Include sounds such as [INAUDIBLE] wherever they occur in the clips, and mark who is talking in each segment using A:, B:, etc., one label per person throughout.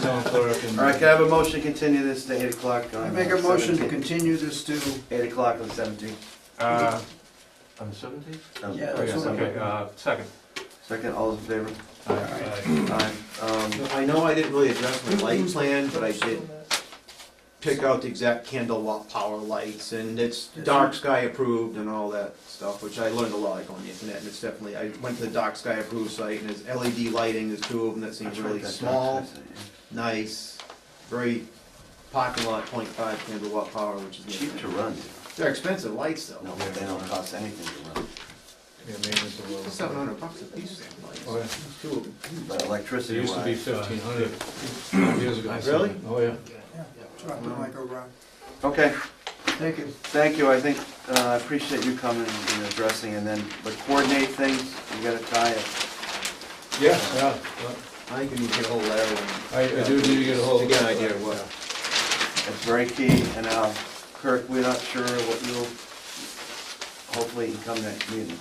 A: clerk and.
B: All right, can I have a motion to continue this to eight o'clock on?
C: I make a motion to
B: 17th?
C: continue this to,
B: Eight o'clock on seventeenth.
A: Uh, On the seventeenth?
C: Yeah,
A: Oh, yes,
C: that's what
A: okay, uh, second.
B: Um,
A: Uh,
B: Second, all those in favor?
A: Aye.
C: Aye.
B: Aye. Um,
D: I know I didn't really address my light plan, but I did pick out the exact candle watt power lights, and it's dark sky approved and all that stuff, which I learned a lot like on the internet, and it's definitely, I went to the dark sky approved site, and there's LED lighting, there's two of them that seem
B: that's right,
D: really
B: that's
D: small,
B: right, that's right.
D: nice, very parking lot, point five candle watt power, which is.
B: Cheap to run,
D: They're expensive lights,
B: no,
D: though.
B: but they don't cost anything to run,
A: Yeah, maintenance of roads.
D: Seven hundred bucks a piece, damn
A: Oh, yeah.
D: lights, two of them.
B: but
A: It
B: electricity
A: used to be
B: wise.
A: fifteen hundred years ago.
D: Really?
A: Oh, yeah.
C: drop it like a rock.
B: Okay,
C: Thank you.
B: thank you, I think, uh, I appreciate you coming and addressing, and then, but coordinate things, you gotta tie it.
A: Yeah, yeah.
D: I can get a whole letter and.
A: I, I do need to get a hold
D: To
A: of.
D: get an idea of what.
B: It's very key, and uh, Kirk, we're not sure what you'll, hopefully you come next meeting.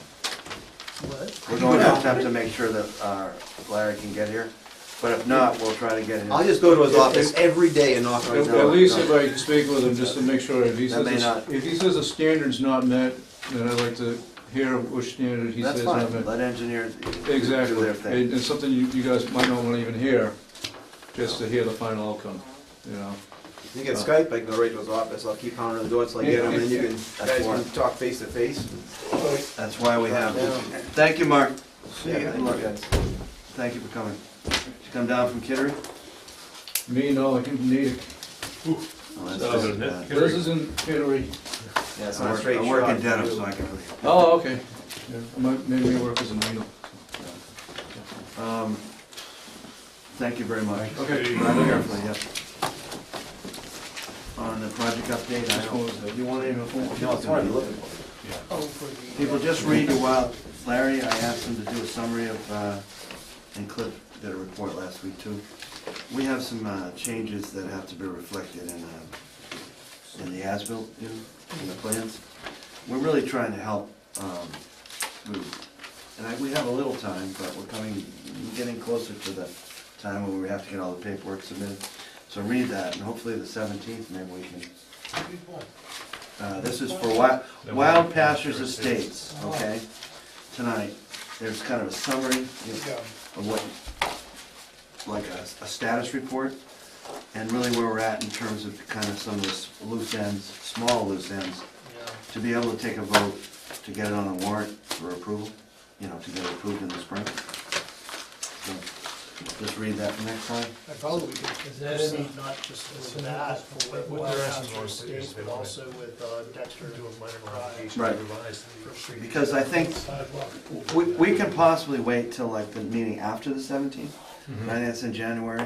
B: We're going to attempt to make sure that uh, Larry can get here, but if not, we'll try to get him.
D: I'll just go to his
A: If-
D: office
A: if-
D: every day and knock on
A: At
B: If-
D: his
B: No,
D: door.
B: no.
A: at least if I can speak with him, just to make sure, if he
B: That
A: says,
B: may not-
A: the- if he says the standard's not met, then I'd like to hear which standard he
B: That's
A: says not
B: fine,
A: met.
B: let engineers do
A: Exactly,
B: their
A: and
B: thing.
A: it's something you, you guys might not wanna even hear, just to hear the final outcome, you know?
D: You get Skype, I can go right to his office, I'll keep pounding on the door until I get him, and then you can, guys can talk face to face.
B: That's why we have them. Thank you, Mark.
D: Yeah, thank you, guys.
B: Thank you for coming. Did you come down from Kittery?
A: Me, no, I can need it,
B: Oh, that's
E: That was
B: just,
E: a nit.
B: uh,
A: this is in Kittery,
D: Yeah, it's
B: I
D: not a
B: work-
D: straight shot.
B: I work in Dedham, so I can really.
A: oh, okay, Yeah, I might, maybe work as a needle.
B: Um, Thank you very much.
A: Okay.
B: Drive carefully, yeah. On the project update, I
A: Just
B: don't,
A: wanted to-
B: you want any
D: No, it's what I'm looking for.
B: People just read a while, Larry, I asked him to do a summary of, uh, and Cliff did a report last week too. We have some uh, changes that have to be reflected in, uh, in the ASBIL, you know, in the plans. We're really trying to help, um, we- and I, we have a little time, but we're coming, getting closer to the time when we have to get all the paperwork submitted. So read that, and hopefully the seventeenth, maybe we can. Uh, this is for Wild, Wild Pastures Estates, okay? Tonight, there's kind of a summary of what, like a, a status report, and really where we're at in terms of kind of some of the loose ends, small loose ends, to be able to take a vote to get it on a warrant for approval, you know, to get it approved in the spring. So, Just read that from next time.
F: I probably we could,
E: Is that
F: proceed
E: any-
F: not just
E: is
F: with
E: that-
F: that, but with
E: what they're asking
F: Wildcats
E: for is
F: State,
E: they want
F: but
E: it-
F: also with uh, Dexter
E: Do a minor
F: Drive.
E: modification,
B: Right.
E: revise the-
B: Because I think
F: Sidewalk.
B: We, we can possibly wait till like the meeting after the seventeenth,
A: Mm-hmm.
B: I think that's in January.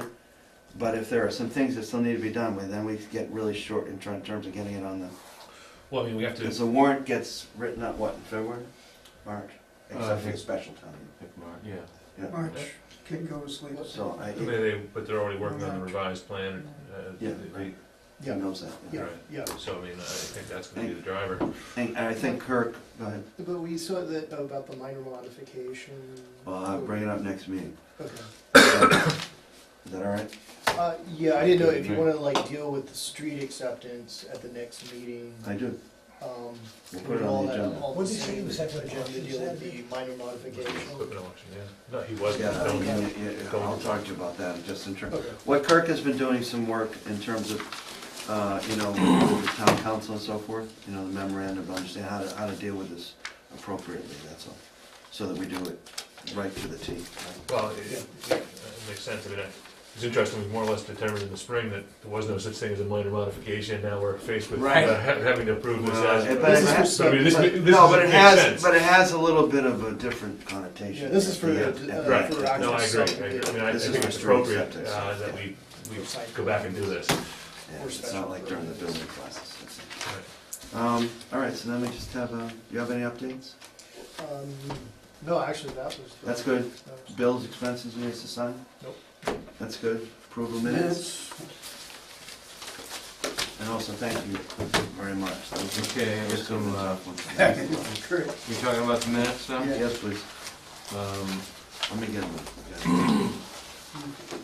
B: But if there are some things that still need to be done with, then we get really short in tr- terms of getting it on the,
E: Well, I mean, we have
B: because
E: to,
B: the warrant gets written up, what, in February? March?
A: Uh, I
B: Except for
A: think-
B: the special time.
E: yeah.
B: Yeah.
C: March, kid go to sleep.
B: So I,
E: I mean, they, but they're already working on the revised plan, uh,
B: yeah,
E: they-
B: right. He knows that. yeah.
F: Yeah, yeah.
E: so I mean, I think that's gonna be the driver.
B: And and I think Kirk, go ahead,
F: But we saw that uh, about the minor modification.
B: well, I'll bring it up next meeting.
F: Okay.
B: Is that all right?
F: Uh, yeah, I didn't know if you wanna like deal with the street acceptance at the next meeting,
B: I do.
F: um,
B: We'll put it
F: all
B: on the
F: that,
B: agenda.
F: all the same agenda deal with the minor modification.
E: Equipment auction, yeah. No, he wasn't.
B: Yeah, I
E: No,
B: mean,
E: he-
B: yeah, yeah, I'll talk to you about that in just in terms.
F: Okay.
B: What Kirk has been doing some work in terms of, uh, you know, with the town council and so forth, you know, the memorandum, to understand how to, how to deal with this appropriately, that's all. So that we do it right to the T.
E: Well, it, it it makes sense, I mean, I- it's interesting, we more or less determined in the spring that there was no such thing as a minor modification, now we're faced with uh,
A: Right.
E: ha- having to approve this
B: Uh,
E: as.
B: but it
E: This is-
B: has-
E: but I mean, this,
F: but-
E: this
B: No, but it
E: makes
B: has,
E: sense.
B: but it has a little bit of a different connotation.
F: Yeah, this is for the,
B: Yeah,
F: uh,
E: Right,
F: for
E: no, I agree, I agree, I mean, I I
B: This is
E: think
B: for
E: it's
B: street
E: appropriate,
B: acceptance.
E: uh, that we, we go back and do this.
B: yeah, It's not like during the building classes. that's it. Um, all right, so then we just have, uh, you have any updates?
F: Um, No, actually, that was. uh,
B: That's good.
F: that was-
B: Bills, expenses, we need to sign?
F: Nope.
B: That's good. Approval minutes? And also, thank you very much.
A: Okay, I
B: Just
A: have
B: some,
A: some, uh,
B: [LAUGHS]
C: Kurt,
A: you talking about the minutes now?
B: Yes, please. [CLEARS THROAT]
A: Um,
B: Let me get them.